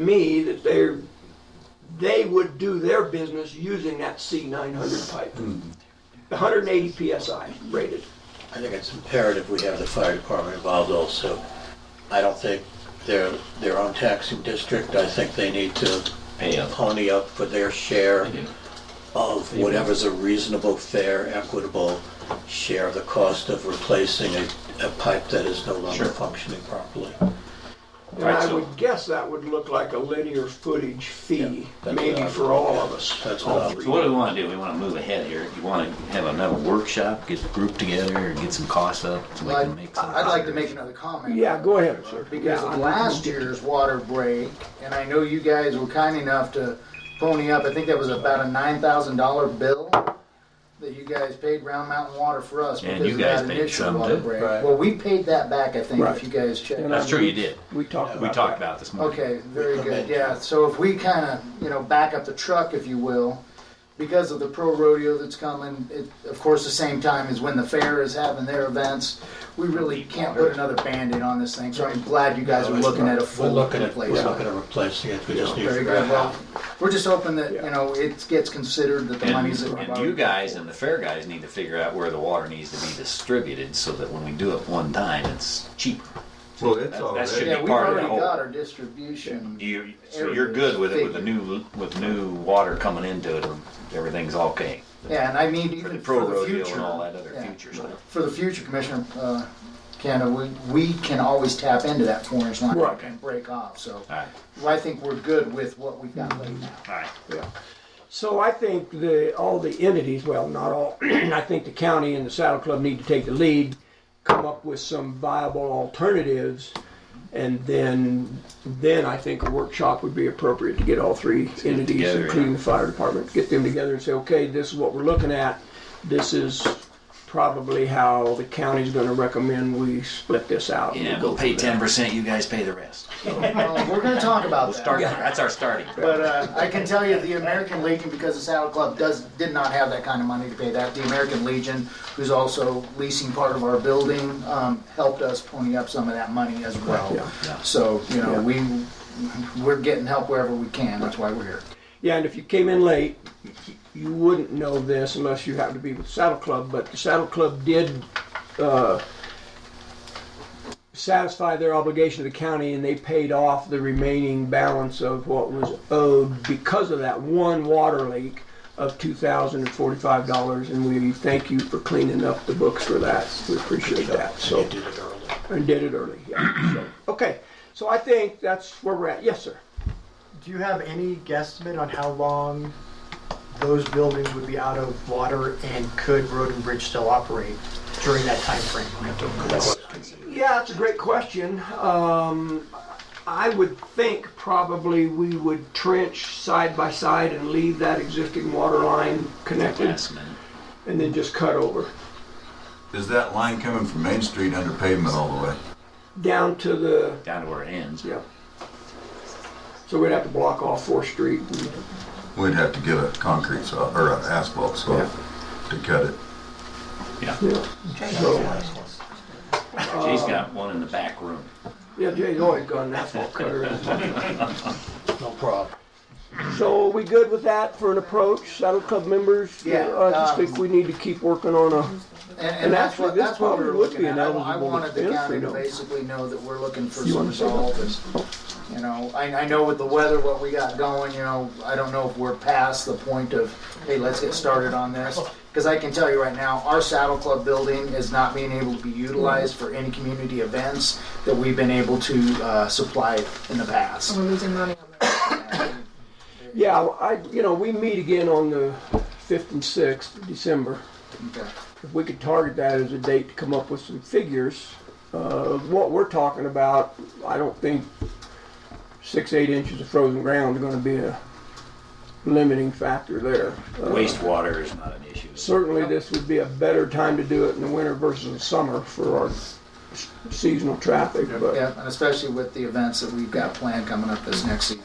me that they're, they would do their business using that Hmm. C900 pipe. 180 PSI rated. I think it's imperative we have the fire department involved also. I don't think they're their own taxing district. I think they need to Pay up. pony up for their share of whatever's a reasonable, fair, equitable share of the cost of replacing a, a pipe that is no longer Sure. functioning properly. And Right, I so- would guess that would look like a linear footage fee, that's what maybe I for all of us. That's all what I- three. So what do we want to do? We want to move ahead here. You want to have another workshop, get the group together, and get some costs up. so we Well, can I'd make some I'd like to make contributions. another comment. Yeah, go ahead, sir. Because Yeah, of I'm- last year's water break, and I know you guys were kind enough to pony up, I think that was about a nine thousand dollar bill that you guys paid Round Mountain Water for us And because you of guys that paid initial some water too. break. Right. Well, we paid that back, I think, Right. if you guys checked. And That's true, you did. We talked about We talked that. about this morning. Okay, very We good, commend yeah, so if we kinda, you know, back up the truck, if you will, because of the pro rodeo that's coming, it, of course, the same time as when the fair is having their events, we really can't put another Band-Aid on this thing, so I'm glad you guys are looking at a We're full looking at, we're replacement. looking at replacing it. We just need to Very figure out good, well, how. we're just hoping that, you know, it gets considered that the And, money's. that we've and already- you guys and the fair guys need to figure out where the water needs to be distributed so that when we do it one time, it's cheaper. Well, That- it's that should already, be- Yeah, we've part of already the whole- got our distribution. You, so you're good with it with the new with new water coming into it. Everything's okay Yeah, and I mean, for the even pro for the rodeo future. and all that other yeah. future stuff. For the future, Commissioner uh, Canada, we, we can always tap into that four inch line Right. and break off, so. All right, well, I think we're good with what we've got laid out. all right. So I think the, all the entities, well, not all, I think the county and the Saddle Club need to take the lead, come up with some viable alternatives, and then, then I think a workshop would be appropriate to get all three entities, together, including yeah. the fire department, get them together and say, okay, this is what we're looking at. This is probably how the county's gonna recommend we split this out. Yeah, we'll pay ten percent. You guys pay the rest. Well, We're gonna talk about We'll start. that. there. That's our starting. But uh, I can tell you, the American Legion, because the Saddle Club does, did not have that kind of money to pay that, the American Legion, who's also leasing part of our building, um, helped us pony up some of that money as well. Yeah. Yeah. So, you Yeah. know, we, we're getting help wherever we can, that's why we're here. Yeah, and if you came in late, you wouldn't know this unless you happened to be with the Saddle Club, but the Saddle Club did uh, satisfy their obligation to the county and they paid off the remaining balance of what was owed because of that one water leak of $2,045. And we thank you for cleaning up the books for that. We appreciate that. You So, did it early. and did it early. Yeah. So, okay, so I think that's where we're at. Yes, sir. Do you have any guesstimate on how long those buildings would be out of water and could Road and Bridge still operate during that timeframe? Yeah, that's a great question. Um, I would think probably we would trench side by side and leave that existing water line connected Last minute. and then just cut over is that line coming from Main Street under pavement all the way? down to the, Down to where it ends. yeah. So we'd have to block off Fourth Street. and- We'd have to get a concrete saw, or an asphalt saw to cut it. Yeah, so, Jay's got one in the back room. yeah, Jay's always got an asphalt cutter. No problem. So are we good with that for an approach? Saddle Club members? Yeah, I just um, think we need to keep working on a. And, And and that's actually, what, this that's what we probably were would looking be an at. I I eligible wanted the expense, county you to know. basically know that we're looking for You some wanna say that? resolve and, you know, I, I know with the weather, what we got going, you know, I don't know if we're past the point of, hey, let's get started on this. Cause I can tell you right now, our Saddle Club building is not being able to be utilized for any community events that we've been able to, uh, supply in the past. Mm-hmm. We're losing money on that. Yeah, I, you know, we meet again on the 5th and 6th of December. Okay. If we could target that as a date to come up with some figures, uh, what we're talking about, I don't think six, eight inches of frozen ground are gonna be a limiting factor there. Uh, Wastewater is not an issue. Certainly, this would be a better time to do it in the winter versus the summer for our s- seasonal traffic, but Yeah, and especially with the events that we've got planned coming up this next season.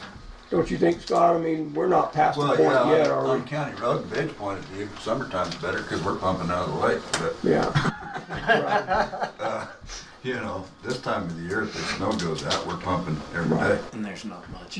don't you think, Scott? I mean, we're not past the Well, point yeah, yet, on- are we? on County Road and Bridge point of view, summertime's better because we're pumping out of the lake. But, Yeah. you know, this time of the year, if the snow goes out, we're pumping every day. And there's not much.